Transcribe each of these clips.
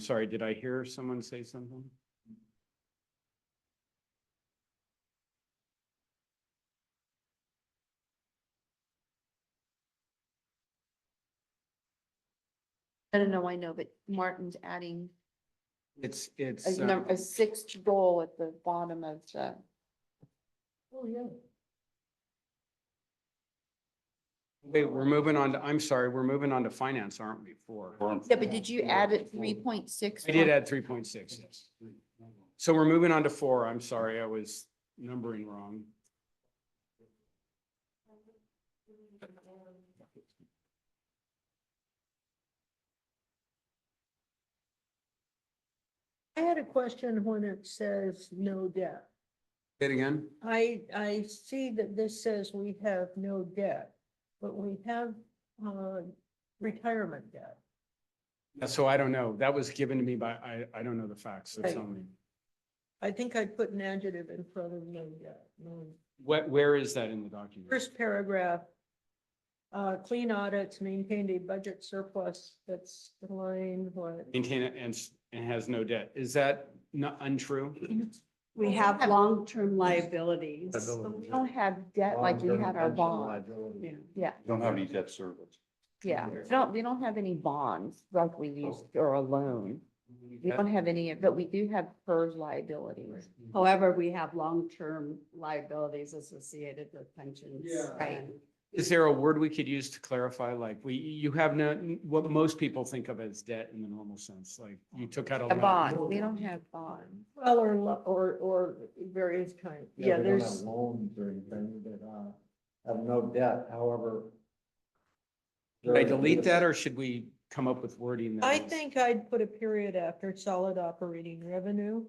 Sorry, did I hear someone say something? I don't know, I know, but Martin's adding It's, it's, a uh, number, a sixth goal at the bottom of the. Oh, yeah. wait, we're moving on to, I'm sorry, we're moving on to finance, aren't we, four? Yeah, but did you add it three point six? I did add three point six, yes. So we're moving on to four. I'm sorry, I was numbering wrong. I had a question when it says no debt. Say it again? I, I see that this says we have no debt, but we have, uh, retirement debt. Yeah, So I don't know. That was given to me by, I, I don't know the facts. so Right. tell me. I think I put an adjective in front of no debt. No. Where, where is that in the document? First paragraph, uh, clean audits, maintained a budget surplus, that's the line, what? Maintain it and, s- and has no debt. Is that not untrue? We have long-term liabilities. We don't have debt like we had our bond. Yeah. Yeah, Don't have any debt service. yeah. We don't, we don't have any bonds like we used or a loan. We don't have any, but we do have PERS liabilities. However, we have long-term liabilities associated with pensions. Yeah. Right. and- Is there a word we could use to clarify, like, we, you have no, what most people think of as debt in the normal sense, like, you took Oh, out a. A loan. bond, we don't have bonds. Well, or, lo- or, or various kinds. Yeah, we don't have there's, Loans or anything that, uh, have no debt, however. Should I delete that, or should we come up with wording? that I is- think I'd put a period after solid operating revenue.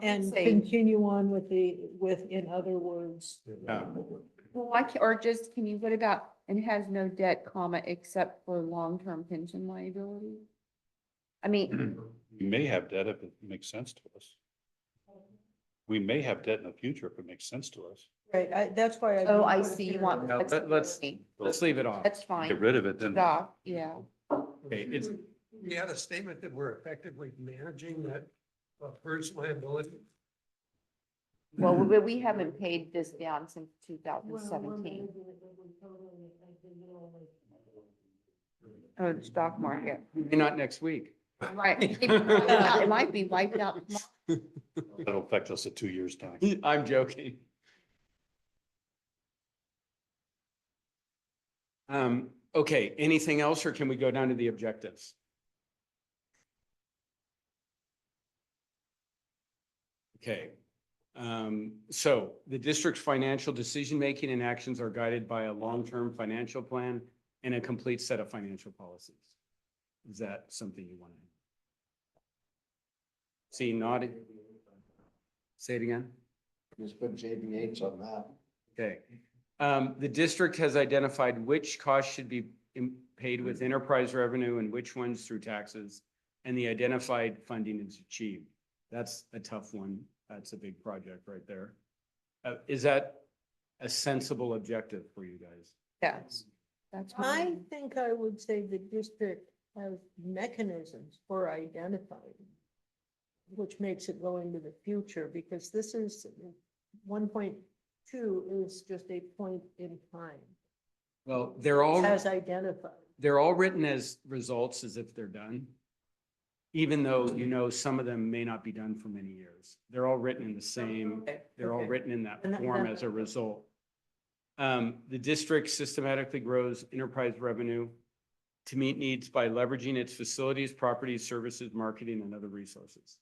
And Say, continue on with the, with, in other words, Oh, Well, why can't, or just, can you, what about, and has no debt, comma, except for long-term pension liability? I mean, We may have debt if it makes sense to us. We may have debt in the future if it makes sense to us. right, I, that's why. Mm-hmm. oh, didn't I put a see, you period. want. No, let- let's- flexibility. Let's leave it off. That's fine. Get rid of it, Mm-hmm. then. Yeah, yeah. Okay, it's, We had a statement that we're effectively managing that uh, PERS liability. Well, we, we haven't paid this down since two thousand seventeen. Oh, the stock market, maybe not next week. right. It might be wiped out. tomorrow. That'll affect us in two years' time. I'm joking. Um, okay, anything else, or can we go down to the objectives? Okay, um, so the district's financial decision-making and actions are guided by a long-term financial plan and a complete set of financial policies. Is that something you want to? See, nodded. Say it again. Just put JBH on that. Okay. Um, the district has identified which costs should be im- paid with enterprise revenue and which ones through taxes. And the identified funding is achieved. That's a tough one. That's a big project right there. Uh, is that a sensible objective for you guys? Yes. That's I fine. think I would say the district has mechanisms for identifying, which makes it go into the future, because this is, one point two is just a point in time Well, they're all, as identified. they're all written as results as if they're done. Even though, you know, some of them may not be done for many years. They're all written in the same. Okay, They're all okay. written in that And that- form that- as a result. Um, the district systematically grows enterprise revenue to meet needs by leveraging its facilities, properties, services, marketing, and other resources.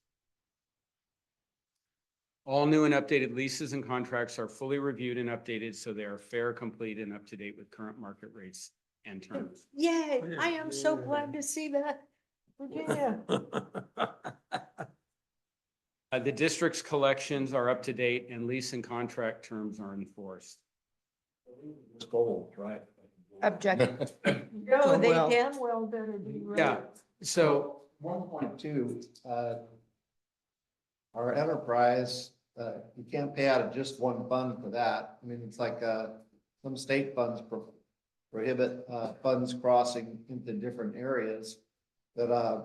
All new and updated leases and contracts are fully reviewed and updated, so they are fair, complete, and up to date with current market rates and terms. Yay, I am so glad to see that. Virginia, Uh, the district's collections are up to date and lease and contract terms are enforced. It's gold, right? Objective. no, they Well- damn well better be right. Yeah. So One point two, uh, our enterprise, uh, you can't pay out of just one fund for that. I mean, it's like, uh, some state funds pro- prohibit, uh, funds crossing into different areas. But, uh,